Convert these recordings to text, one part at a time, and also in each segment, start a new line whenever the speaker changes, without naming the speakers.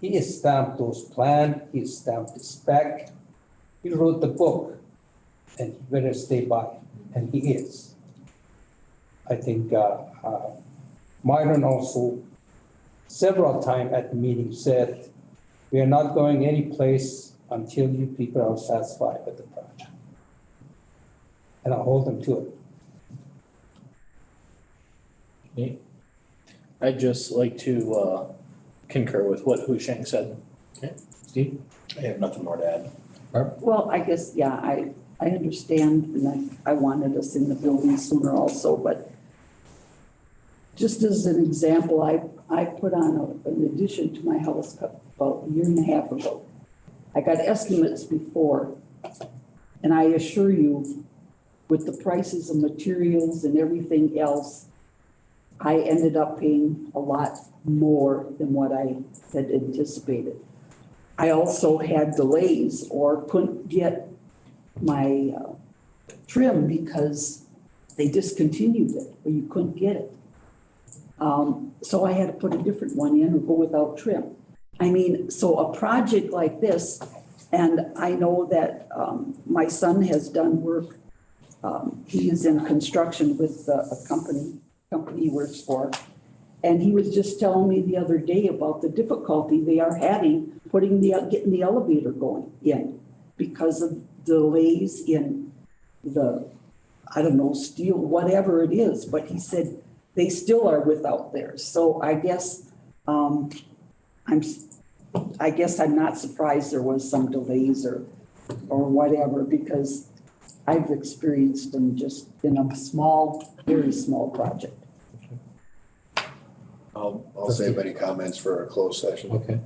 He stamped those plans, he stamped the spec, he wrote the book, and he better stay by, it, and he is. I think, uh, uh, Myron also several times at the meeting said, we are not going any place until you people are satisfied with the project. And I hold them to it.
I'd just like to uh, concur with what Hu Sheng said.
Okay.
Steve?
I have nothing more to add.
Well, I guess, yeah, I, I understand, and I, I wanted us in the building sooner also, but just as an example, I, I put on a- an addition to my house about a year and a half ago. I got estimates before, and I assure you, with the prices of materials and everything else, I ended up paying a lot more than what I had anticipated. I also had delays or couldn't get my uh, trim because they discontinued it or you couldn't get it. Um, So I had to put a different one in or go without trim. I mean, so a project like this, and I know that um, my son has done work. um, He is in construction with uh, a a company, company he works for. And he was just telling me the other day about the difficulty they are having putting the, getting the elevator going in because of delays in the, I don't know, steel, whatever it is, but he said they still are without theirs. So I guess, um, I'm, s- I guess I'm not surprised there was some delays or, or whatever because I've experienced them just in a small, very small project.
I'll, I'll save any comments for a closed session.
Okay.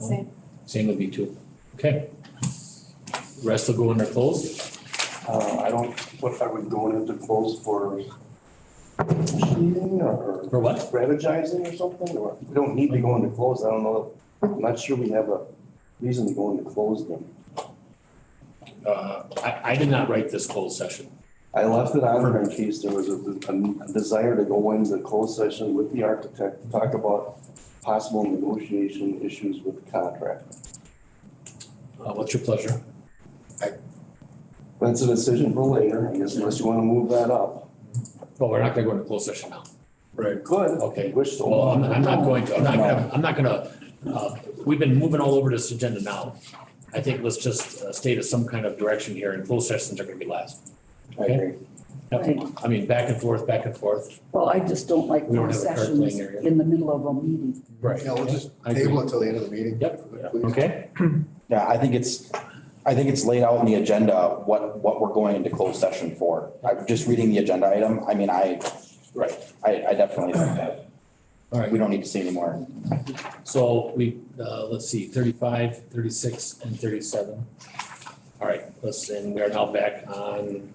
Same.
Same with me too. Okay. Rest will go under closed.
Uh, I don't, what, are we going into close for negotiating or
For what?
strategizing or something, or we don't need to go into close, I don't know. I'm not sure we have a reason to go into close then.
Uh, I, I did not write this closed session.
I left it on there in case there was a, a desire to go into closed session with the architect to talk about possible negotiation issues with the contract.
Uh, What's your pleasure?
That's a decision for later, I guess unless you wanna move that up.
Well, Oh, we're not gonna go into closed session now.
Right.
Could,
Okay.
wish so.
Well, I'm, I'm not going to, I'm not gonna, I'm not gonna, uh, we've been moving all over this agenda now. I think let's just uh, state as some kind of direction here and closed sessions are gonna be last.
I agree.
Yep. I mean, back and forth, back and forth.
Well, I just don't like
We don't have a card playing
sessions
area.
in the middle of a meeting.
Right.
Yeah, we'll just
I agree.
table it till the end of the meeting.
Yep.
Please.
Okay,
Yeah, I think it's, I think it's laid out in the agenda what, what we're going into closed session for. I'm just reading the agenda item. I mean, I, right, I, I definitely think that.
all right.
We don't need to say anymore.
So we, uh, let's see, 35, 36, and thirty-seven. All right, let's, and we are now back on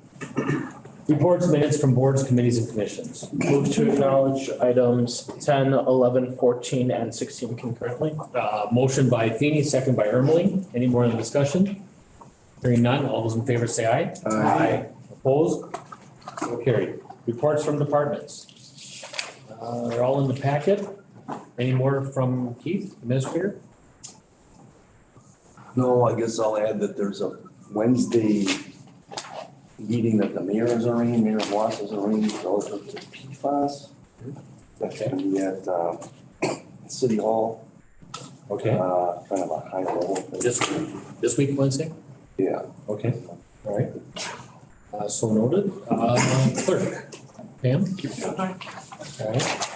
reports, minutes from boards, committees, and commissions.
Move to acknowledge items 10, 11, 14, and 16 concurrently.
Uh, motion by Feeny, second by Ermeling. Any more in the discussion? Hearing none, all those in favor say aye.
Uh,
Aye. Opposed? So carried. Reports from departments. Uh, they're all in the packet. Any more from Keith, administrator?
No, I guess I'll add that there's a Wednesday meeting that the mayor is arranging, Mayor Watts is arranging relative to PFAS. That's gonna be at, uh, City Hall, uh,
Okay,
kind of a high level. thing.
this, this week, Wednesday?
Yeah.
Okay, all right. Uh, so noted. Uh, clerk, Pam? All right.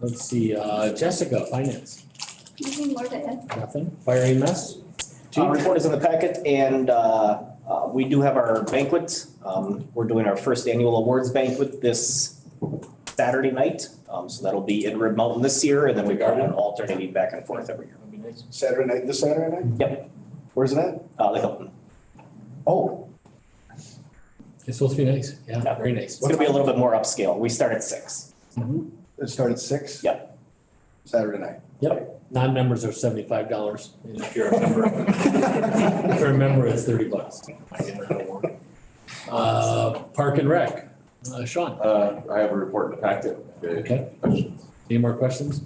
Let's see, uh, Jessica, finance.
Anything more to add?
Nothing. Fire EMS?
Uh, report is in the packet and uh, uh, we do have our banquet. Um, We're doing our first annual awards banquet this Saturday night. Um, So that'll be in Red Mountain this year and then we've got an alternating back and forth every year.
Saturday night, this Saturday night?
Yep.
Where's that?
Uh, The Hilton.
Oh,
It's supposed to be nice. Yeah, very nice.
It's going to be a little bit more upscale. We start at six.
it started at six?
Yep.
Saturday night.
Non-members are seventy-five dollars. If you're a member, if you're a member, it's thirty bucks. I didn't know how it worked. Uh, Park and Rec, uh, Sean,
Uh, I have a report in the packet.
okay? Any more questions?